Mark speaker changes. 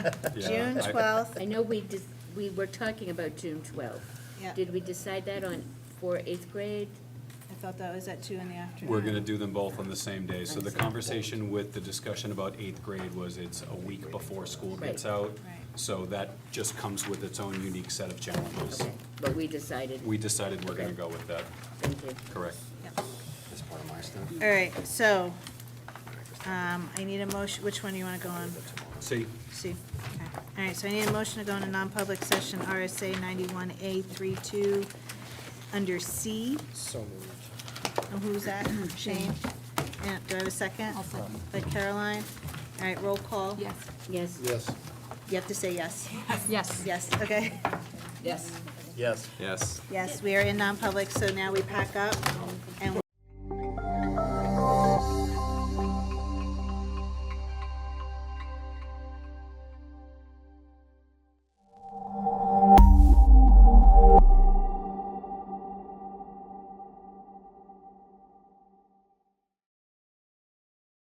Speaker 1: June
Speaker 2: I-
Speaker 1: twelfth,
Speaker 3: I know we, dis- we were talking about June 12th.
Speaker 1: yeah,
Speaker 3: Did we decide that on, for eighth grade?
Speaker 1: I thought that was at two in the afternoon.
Speaker 2: We're going to do them both on the same day. So the conversation with the discussion about eighth grade was it's a week before school gets
Speaker 3: Right.
Speaker 2: out.
Speaker 1: Right.
Speaker 2: So that just comes with its own unique set of challenges.
Speaker 3: Okay, but we decided,
Speaker 2: We decided we're going to go
Speaker 3: Okay.
Speaker 2: with that,
Speaker 3: thank you.
Speaker 2: correct?
Speaker 1: Yep.
Speaker 4: That's part of my stuff.
Speaker 1: All right, so, um, I need a motion, which one do you wanna go on?
Speaker 2: See,
Speaker 1: See, okay. All right, so I need a motion to go into non-public session, RSA ninety-one A 32 under C.
Speaker 4: So moved.
Speaker 1: And who's that? Shane? Yeah, do I have a 2nd
Speaker 5: I'll second.
Speaker 1: By Caroline. All right, roll call.
Speaker 5: Yes.
Speaker 3: Yes?
Speaker 4: Yes.
Speaker 1: You have to say yes.
Speaker 5: Yes.
Speaker 1: Yes, okay.
Speaker 5: Yes.
Speaker 4: Yes.
Speaker 2: yes.
Speaker 1: Yes, we are in non-public, so now we pack up and